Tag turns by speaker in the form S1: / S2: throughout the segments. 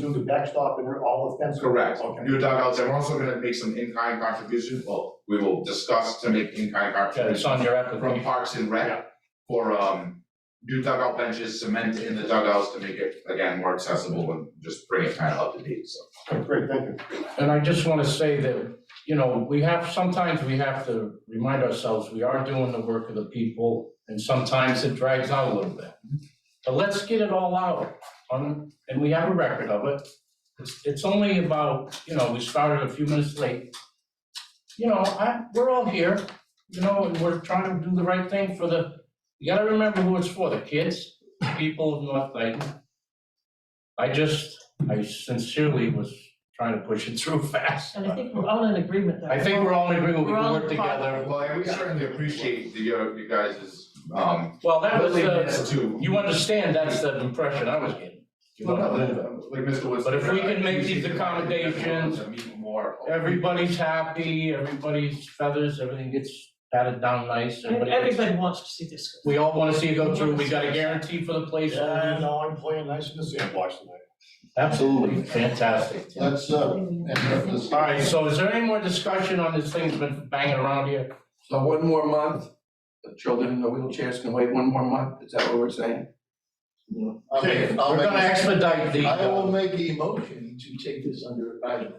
S1: do the backstop and all the fence.
S2: Correct,
S1: Okay.
S2: new dugouts, and we're also gonna make some in-kind contribution, well, we will discuss to make in-kind
S3: Okay, it's
S2: contributions
S3: on your
S2: from
S3: application.
S2: Parks and
S1: Yeah.
S2: Rec for um new dugout benches, cement in the dugouts to make it again more accessible and just bring it kind of up to date, so.
S1: Great, thank you.
S3: And I just want to say that, you know, we have, sometimes we have to remind ourselves, we are doing the work of the people, and sometimes it drags out a little bit. But let's get it all out, on, and we have a record of it. It's, it's only about, you know, we started a few minutes late. You know, I, we're all here, you know, and we're trying to do the right thing for the, you gotta remember who it's for, the kids, the people of North Dayton. I just, I sincerely was trying to push it through fast.
S4: And I think we're all in agreement that.
S3: I think we're all in agreement, we
S4: We're
S3: can
S4: all
S3: work
S4: in part.
S3: together.
S2: Well, and we certainly appreciate the uh you guys' um
S3: Well, that was the,
S2: willingness to.
S3: you understand, that's the impression I was getting. You
S2: No, no,
S3: know, that
S2: no, like Mr. Woods.
S3: But if we can make these
S2: I appreciate the-
S3: accommodations,
S2: To meet more.
S3: Everybody's happy, everybody's feathers, everything gets patted down nice,
S4: And
S3: everybody.
S4: Everybody wants to see this.
S3: We all wanna see it go through, we got a guarantee for the place.
S1: Yeah, no, I'm playing nice in the sandbox tonight.
S3: Absolutely fantastic.
S5: That's, uh, and that was-
S3: Alright, so is there any more discussion on this thing that's been banging around here?
S6: So one more month, the children in the wheelchairs can wait one more month, is that what we're saying?
S5: I'll make-
S2: Okay,
S5: I'll
S3: We're
S5: make-
S3: gonna expedite the,
S5: I will
S3: uh,
S5: make a motion to take this under advisement.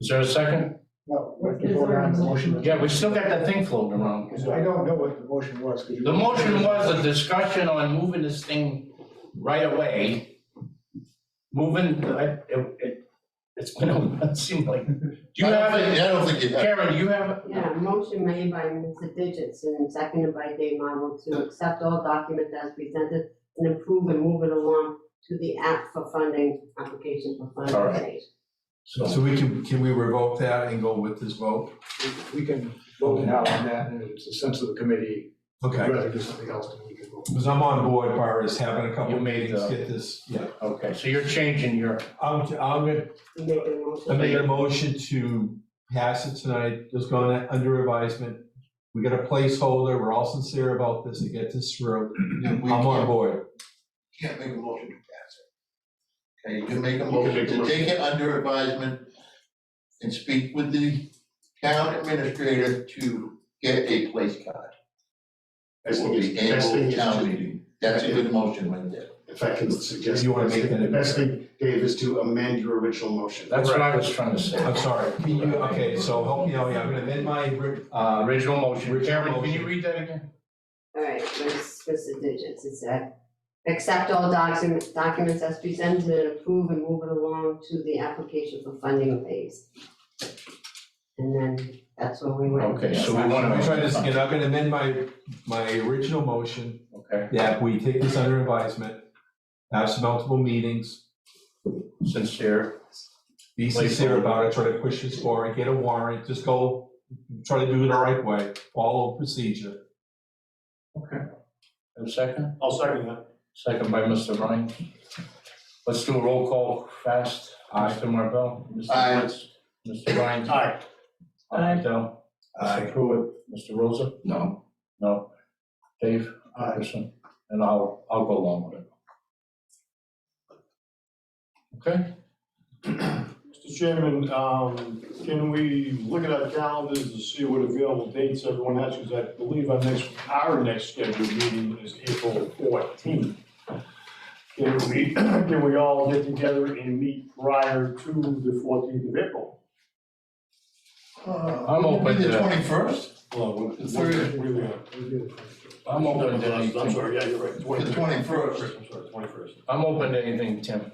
S3: is there a second?
S7: Well, we have to vote on the motion.
S3: Yeah, we still got that thing floating around.
S7: Because I don't know what the motion was, could you?
S3: The motion was a discussion on moving this thing right away. Moving, I- it, it, it's been, a- it seemed like, do you
S5: I don't
S3: have
S5: think-
S3: it?
S5: I don't think you have.
S3: Karen, do you have? it?
S8: Yeah, motion made by Mr. Digitson and seconded by Dave Marvel to accept all documents as presented and approve and move it along to the app for funding, application for
S3: All
S8: funding
S3: right.
S8: stage.
S3: So,
S9: So we can, can we revoke that and go with this vote?
S7: We can vote now on that, and it's the sense of the committee, if
S9: Okay,
S7: you'd rather do something else, then we can vote.
S9: because I'm on board, far as having a couple
S3: You made
S9: meetings,
S3: the-
S9: get this, yeah.
S3: okay, so you're changing your,
S9: I'm, I'm gonna,
S8: You make a motion.
S9: I made a motion to pass it tonight, just going under advisement. We got a placeholder, we're all sincere about this, to get this through,
S5: Yeah, we
S9: I'm on
S5: can't-
S9: board.
S5: Can't make a motion to pass it. Okay, you can make a
S1: can
S5: motion
S1: make a
S5: to
S1: motion.
S5: take it under advisement and speak with the town administrator to get a place card.
S1: That's
S5: for
S1: what
S5: the
S1: the best thing
S5: annual
S1: is
S5: town
S1: to,
S5: meeting. That's a good motion right there.
S1: if I can suggest,
S9: You wanna make that
S1: the best thing, Dave, is to amend your original motion.
S3: that's what I was trying to say.
S9: I'm sorry, can you, okay, so help me out, here. I'm gonna amend my, uh,
S3: Original motion,
S9: Original
S3: Karen, can you
S9: motion.
S3: read that again?
S8: All right, Miss- Mr. Digits, it said, accept all documents, documents as presented and approve and move it along to the application for funding phase. And then that's where we went.
S3: Okay, so we
S9: I'm
S3: wanna
S9: gonna try this again, I'm gonna amend my, my original motion
S3: Okay,
S9: that we take this under advisement, have some multiple meetings,
S3: sincere,
S9: be sincere about it, try to push this forward, get a warrant, just go, try to do it the right way, follow procedure.
S3: and second,
S1: I'll second that.
S3: second by Mr. Ryan. Let's do a roll call fast, Mr. Marvell, Mr.
S5: Aye.
S3: Woods, Mr. Ryan.
S1: All right,
S4: Aye.
S3: Adele. Mr. Pruitt, Mr. Rosa,
S6: No.
S3: no, Dave, Anderson, and I'll, I'll go along with it. Okay,
S1: Mr. Chairman, um, can we look at our calendars to see what available dates everyone has? Because I believe our next, our next scheduled meeting is April fourteenth. Can we, can we all get together and meet prior to the fourteenth of April?
S5: Uh,
S3: I'm open
S5: Maybe
S3: to
S5: the
S3: that.
S5: twenty-first,
S1: Well,
S5: The third.
S3: I'm open to
S1: I'm
S3: anything,
S1: sorry, yeah, you're right.
S5: the
S1: 21st.
S5: twenty-first.
S1: I'm sorry, twenty-first.
S3: I'm open to anything, Tim,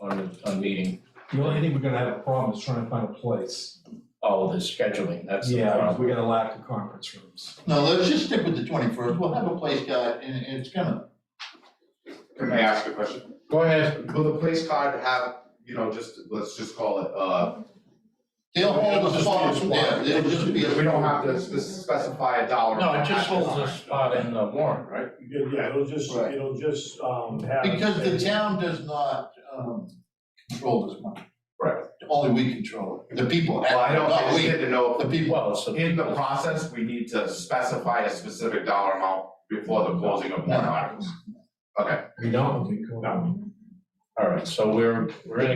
S3: on, on meeting,
S9: The only thing we're gonna have a problem is trying to find a place.
S3: all the scheduling, that's the
S9: Yeah,
S3: problem.
S9: we're gonna lack the conference rooms.
S5: No, let's just stick with the twenty-first, we'll have a place guy, and and it's gonna,
S2: Can I ask a question?
S3: Go ahead,
S2: Will the place card have, you know, just, let's just call it, uh.
S5: they'll
S1: It'll
S5: hold
S1: just be
S5: the
S1: a
S5: spot from there,
S1: spot.
S5: they'll just be. a-
S2: We don't have to spec- specify a dollar.
S3: no, it
S2: amount
S3: just
S2: at this
S3: holds a
S2: time.
S3: spot in the warrant, right?
S1: Yeah, it'll just,
S5: Right.
S1: it'll just, um, have.
S5: Because the town does not, um, control this money.
S2: Right.
S5: Only we control it, the people,
S2: Well, I don't, I
S5: not
S2: just
S5: we,
S2: need to know,
S5: the people.
S3: Well, so.
S2: if in the process, we need to specify a specific dollar amount before the closing of warrant articles.
S9: We don't, we go.
S3: All All right, so we're, we're in